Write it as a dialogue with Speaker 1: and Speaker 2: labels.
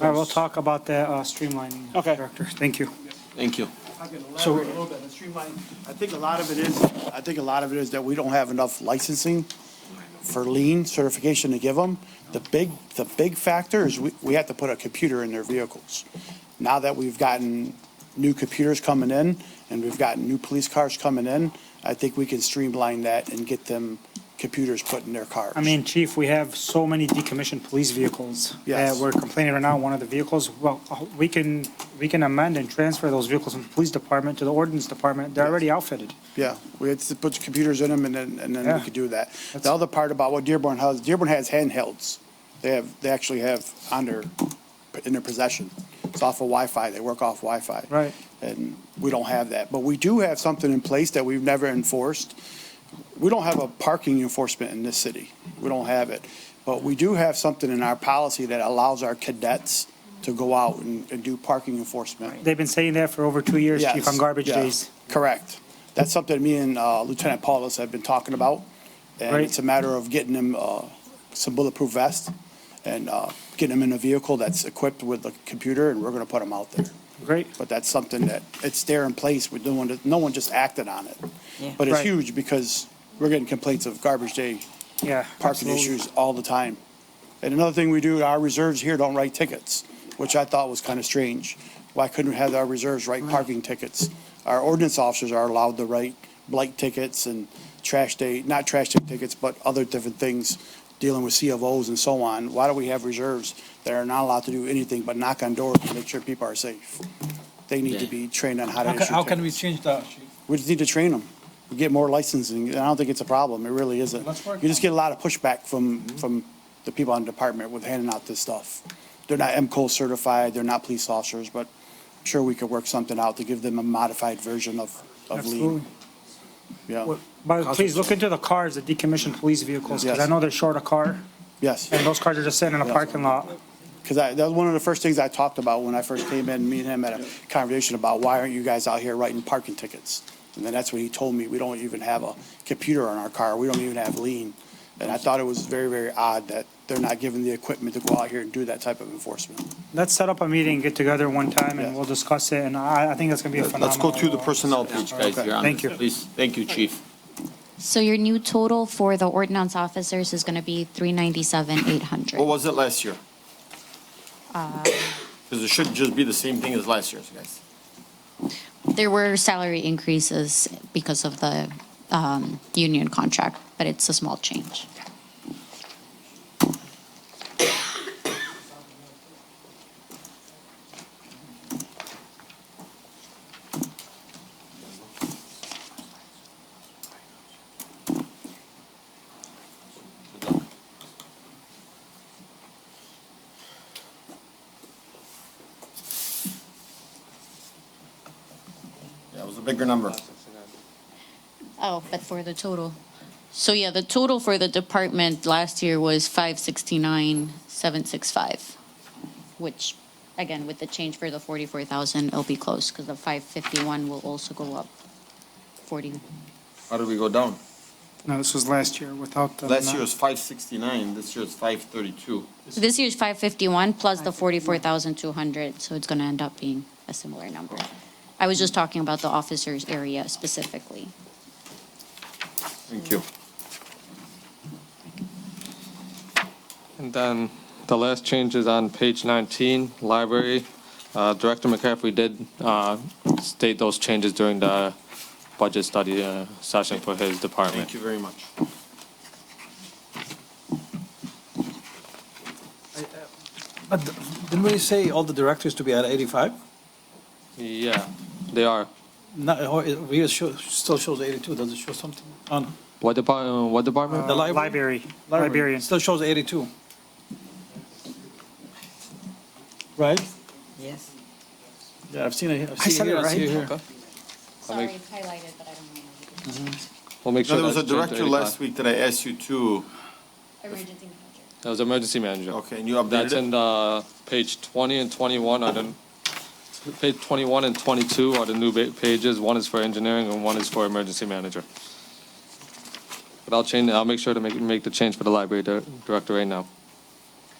Speaker 1: All right, we'll talk about the uh, streamlining.
Speaker 2: Okay.
Speaker 1: Director, thank you.
Speaker 3: Thank you.
Speaker 4: I can
Speaker 2: So-
Speaker 4: elaborate a little bit, the streamline, I think a lot of it is, I think a lot of it is that we don't have enough licensing for lean certification to give them. The big, the big factor is we, we have to put a computer in their vehicles. Now that we've gotten new computers coming in and we've gotten new police cars coming in, I think we can streamline that and get them computers put in their cars.
Speaker 1: I mean, Chief, we have so many decommissioned police vehicles.
Speaker 4: Yes.
Speaker 1: That we're complaining right now, one of the vehicles, well, uh, we can, we can amend and transfer those vehicles from the police department to the ordinance department. They're already outfitted.
Speaker 4: Yeah, we had to put the computers in them and then, and then
Speaker 1: Yeah.
Speaker 4: we could do that.
Speaker 1: That's-
Speaker 4: The other part about what Dearborn has, Dearborn has handhelds. They have, they actually have on their, in their possession. It's off of Wi-Fi. They work off Wi-Fi.
Speaker 1: Right.
Speaker 4: And we don't have that. But we do have something in place that we've never enforced. We don't have a parking enforcement in this city. We don't have it. But we do have something in our policy that allows our cadets to go out and, and do parking enforcement.
Speaker 1: They've been saying that for over two years, Chief,
Speaker 4: Yes,
Speaker 1: on garbage
Speaker 4: yeah,
Speaker 1: days.
Speaker 4: Correct. That's something me and uh, Lieutenant Paulus have been talking about. And
Speaker 1: Right.
Speaker 4: it's a matter of getting them uh, some bulletproof vests and uh, getting them in a vehicle that's equipped with a computer and we're going to put them out there.
Speaker 1: Great.
Speaker 4: But that's something that, it's there in place. We're doing, no one just acted on it. But it's
Speaker 1: Right.
Speaker 4: huge because we're getting complaints of garbage day
Speaker 1: Yeah.
Speaker 4: parking
Speaker 1: absolutely.
Speaker 4: issues all the time. And another thing we do, our reserves here don't write tickets, which I thought was kind of strange. Why couldn't we have our reserves write parking tickets? Our ordinance officers are allowed to write blight tickets and trash day, not trash day tickets, but other different things dealing with CFOs and so on. Why do we have reserves that are not allowed to do anything but knock on doors to make sure people are safe? They need to
Speaker 3: Yeah.
Speaker 4: be trained on how to
Speaker 5: How
Speaker 4: issue
Speaker 5: can, how can we
Speaker 4: tickets.
Speaker 5: change that?
Speaker 4: We just need to train them, get more licensing, and I don't think it's a problem, it really isn't.
Speaker 5: Let's work
Speaker 4: You just
Speaker 5: on it.
Speaker 4: get a lot of pushback from, from the people in the department with handing out this stuff. They're not MCO certified, they're not police officers, but I'm sure we could work something out to give them a modified version of, of
Speaker 1: Absolutely.
Speaker 4: lean. Yeah,
Speaker 1: Well, But please look into the cars, the decommissioned police vehicles, because I
Speaker 4: Yes.
Speaker 1: know they're short a car,
Speaker 4: yes,
Speaker 1: and those cars are just sitting in a
Speaker 4: Yeah.
Speaker 1: parking lot.
Speaker 4: because I, that was one of the first things I talked about when I first came in, me and him had a conversation about why aren't you guys out here writing parking tickets? And then that's when he told me, we don't even have a computer on our car, we don't even have lean. And I thought it was very, very odd that they're not given the equipment to go out here and do that type of enforcement.
Speaker 1: Let's set up a meeting, get together one time, and
Speaker 4: Yeah.
Speaker 1: we'll discuss it, and I, I think that's gonna be a phenomenal.
Speaker 3: Let's go through the personnel page, guys. You're on
Speaker 1: Thank
Speaker 3: this,
Speaker 1: you.
Speaker 3: Please, thank you, chief.
Speaker 6: So your new total for the ordinance officers is gonna be three ninety-seven, eight
Speaker 3: What
Speaker 6: hundred.
Speaker 3: was it last year?
Speaker 1: Uh,
Speaker 3: Because it should just be the same thing as last year's, guys.
Speaker 6: There were salary increases because of the, um, union contract, but it's a small change.
Speaker 3: Yeah, it was a bigger number.
Speaker 6: Oh, but for the total. So yeah, the total for the department last year was five sixty-nine, seven six five, which, again, with the change for the forty-four thousand, it'll be close, because the five fifty-one will also go up forty.
Speaker 3: How did we go down?
Speaker 1: No, this was last year without the.
Speaker 3: Last year was five sixty-nine, this year is five thirty-two.
Speaker 6: So This year's five fifty-one plus the forty-four thousand two hundred, so it's gonna end up being a similar number. I was just talking about the officers area specifically.
Speaker 3: Thank you.
Speaker 7: And then the last change is on page 19, library. Uh, Director McCaffrey did uh, state those changes during the budget study uh, session for his
Speaker 3: Thank
Speaker 7: department.
Speaker 3: you very much.
Speaker 5: But didn't we say all the directors to be at 85?
Speaker 7: Yeah, they are.
Speaker 5: No, or uh, it really show- still shows 82, does it show something? Oh, no.
Speaker 7: What department, what department?
Speaker 5: The li-
Speaker 1: Library, librarian.
Speaker 5: Still shows 82. Right?
Speaker 8: Yes.
Speaker 5: Yeah, I've seen it.
Speaker 1: I said it right.
Speaker 6: Sorry, it's highlighted, but I don't know.
Speaker 7: We'll make
Speaker 3: No,
Speaker 7: sure
Speaker 3: there was a
Speaker 7: that's changed to
Speaker 3: director last
Speaker 7: 85.
Speaker 3: week that I asked you to,
Speaker 6: Emergency manager.
Speaker 7: That was emergency manager.
Speaker 3: okay, and you
Speaker 7: That's
Speaker 3: updated it?
Speaker 7: in uh, page 20 and 21 are the, page 21 and 22 are the new ba- pages. One is for engineering and one is for emergency manager. But I'll change, I'll make sure to make, make the change for the library dir- director right now.